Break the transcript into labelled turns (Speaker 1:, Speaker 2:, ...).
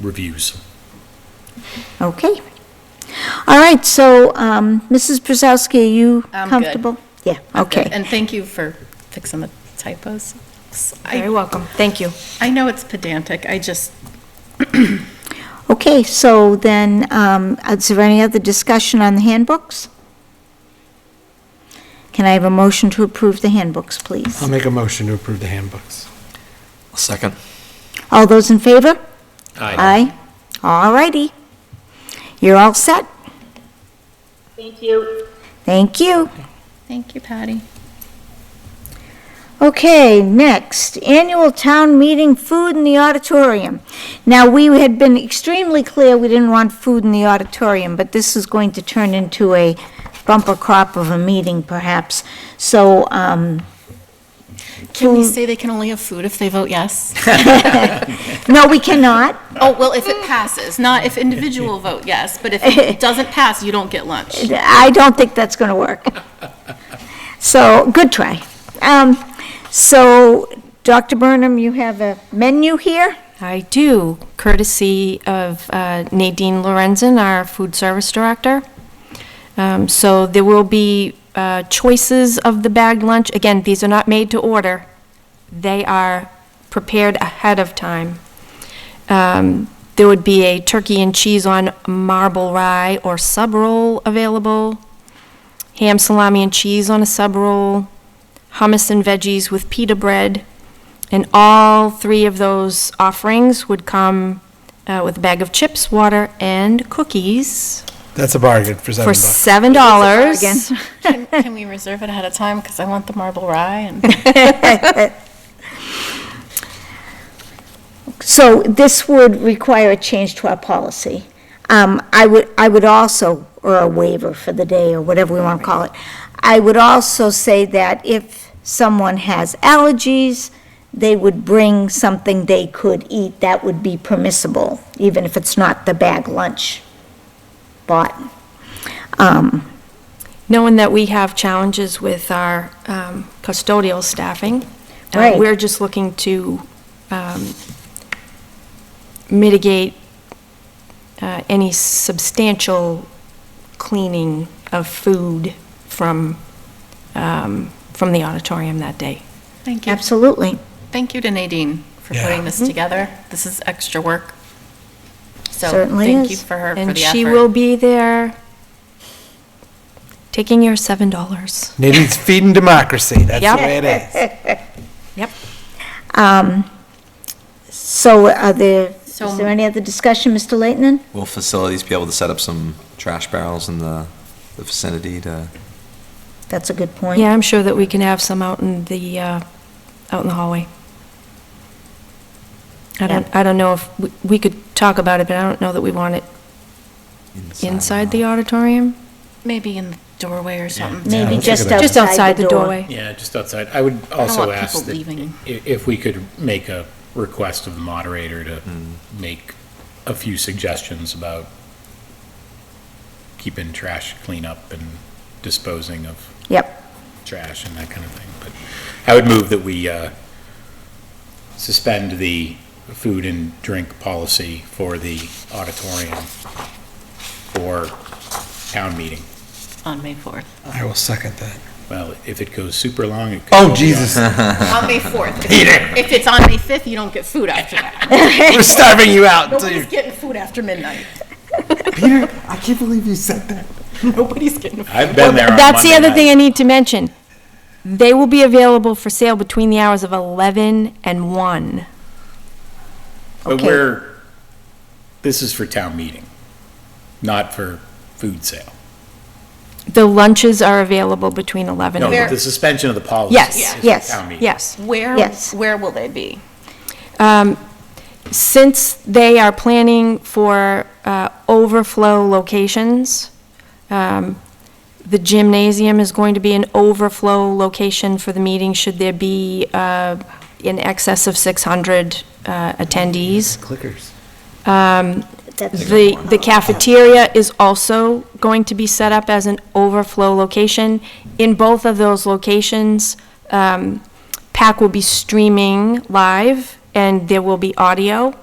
Speaker 1: reviews.
Speaker 2: Okay. All right, so, um, Mrs. Brzezowski, are you
Speaker 3: I'm good.
Speaker 2: comfortable? Yeah, okay.
Speaker 3: And thank you for fixing the typos.
Speaker 4: You're
Speaker 3: I,
Speaker 4: welcome. Thank you.
Speaker 3: I know it's pedantic, I just,
Speaker 2: Okay, so then, um, is there any other discussion on the handbooks? Can I have a motion to approve the handbooks,
Speaker 5: I'll
Speaker 6: Um,
Speaker 2: please?
Speaker 5: make a motion to approve the handbooks.
Speaker 6: Second.
Speaker 2: All those in favor?
Speaker 1: Aye.
Speaker 2: Aye. All righty. You're all set?
Speaker 7: Thank you.
Speaker 2: Thank you.
Speaker 3: thank you, Patty.
Speaker 2: Okay, next, annual town meeting food in the auditorium. Now, we had been extremely clear we didn't want food in the auditorium, but this is going to turn into a bumper crop of a meeting perhaps. So, um,
Speaker 3: Can we
Speaker 2: Food-
Speaker 3: say they can only have food if they vote yes?
Speaker 2: no, we cannot.
Speaker 3: Oh, well, if it passes, not if individual vote yes, but if it doesn't pass, you don't get lunch.
Speaker 2: I don't think that's going to work. So, good try. Um, so, Dr. Burnham, you have a menu here?
Speaker 4: I do, courtesy of uh, Nadine Lorenzen, our food service director. Um, So there will be uh, choices of the bagged lunch. Again, these are not made to order. They are prepared ahead of time. Um, There would be a turkey and cheese on marble rye or sub roll available, ham, salami, and cheese on a sub roll, hummus and veggies with pita bread. And all three of those offerings would come uh, with a bag of chips, water, and cookies
Speaker 5: That's a bargain for seven
Speaker 4: for
Speaker 5: bucks.
Speaker 4: seven dollars.
Speaker 3: Can can we reserve it ahead of time, because I want the marble rye and
Speaker 2: So this would require a change to our policy. Um, I would, I would also, or a waiver for the day, or whatever we want to call it. I would also say that if someone has allergies, they would bring something they could eat that would be permissible, even if it's not the bag lunch bought. Um,
Speaker 4: Knowing that we have challenges with our um, custodial staffing, uh,
Speaker 2: Right.
Speaker 4: we're just looking to um, mitigate uh, any substantial cleaning of food from, um, from the auditorium that day.
Speaker 3: Thank you, Mm-hmm.
Speaker 2: Absolutely.
Speaker 3: thank you to Nadine for putting this together. This is extra work. So
Speaker 2: Certainly
Speaker 3: Thank you
Speaker 2: is.
Speaker 3: for her, for the
Speaker 4: And
Speaker 3: effort.
Speaker 4: she will be there taking your $7.
Speaker 5: Nadine's feeding democracy. That's
Speaker 4: Yep.
Speaker 5: the way it is.
Speaker 4: Yep.
Speaker 2: Um, So are there,
Speaker 3: So-
Speaker 2: is there any other discussion, Mr. Leighton?
Speaker 6: Will facilities be able to set up some trash barrels in the the vicinity to?
Speaker 2: That's a good point.
Speaker 4: Yeah, I'm sure that we can have some out in the, uh, out in the hallway. I don't, I don't know if, we- we could talk about it, but I don't know that we want it inside the auditorium.
Speaker 3: Maybe in the doorway or something.
Speaker 2: Maybe
Speaker 5: Sounds
Speaker 2: just
Speaker 5: like a-
Speaker 2: outside.
Speaker 4: Just outside the
Speaker 2: door.
Speaker 4: doorway.
Speaker 1: Yeah, just outside. I would also
Speaker 3: want
Speaker 1: ask
Speaker 3: people
Speaker 1: that
Speaker 3: leaving.
Speaker 1: i- if we could make a request of the moderator to
Speaker 5: Hmm.
Speaker 1: make a few suggestions about keeping trash clean up and disposing of
Speaker 2: Yep.
Speaker 1: trash and that kind of thing. But I would move that we uh, suspend the food and drink policy for the auditorium for town meeting.
Speaker 3: On May 4th.
Speaker 5: I will second that.
Speaker 1: Well, if it goes super long, it could. go
Speaker 5: Oh,
Speaker 1: beyond-
Speaker 5: Jesus.
Speaker 3: On May 4th. If- If it's on May 5th, you don't get food after that.
Speaker 5: We're starving you out until you.
Speaker 3: Nobody's getting food after midnight.
Speaker 5: Peter, I can't believe you said that.
Speaker 3: Nobody's getting,
Speaker 1: I've been there on
Speaker 4: That's the
Speaker 1: Monday
Speaker 4: other thing
Speaker 1: night.
Speaker 4: I need to mention. They will be available for sale between the hours of 11 and 1.
Speaker 1: But
Speaker 2: Okay.
Speaker 1: we're, this is for town meeting, not for food sale.
Speaker 4: The lunches are available between 11
Speaker 1: No,
Speaker 4: and
Speaker 1: but
Speaker 4: 1.
Speaker 1: the suspension of the policy.
Speaker 4: Yes,
Speaker 1: is for
Speaker 2: yes,
Speaker 1: town meeting.
Speaker 4: Yes.
Speaker 3: where,
Speaker 2: Yes.
Speaker 3: where will they be?
Speaker 4: Um, Since they are planning for uh, overflow locations, um, the gymnasium is going to be an overflow location for the meeting should there be uh, in excess of 600 uh, attendees.
Speaker 5: Clickers.
Speaker 4: Um,
Speaker 2: That's-
Speaker 4: The the cafeteria is also going to be set up as an overflow location. In both of those locations, um, PAC will be streaming live, and there will be audio.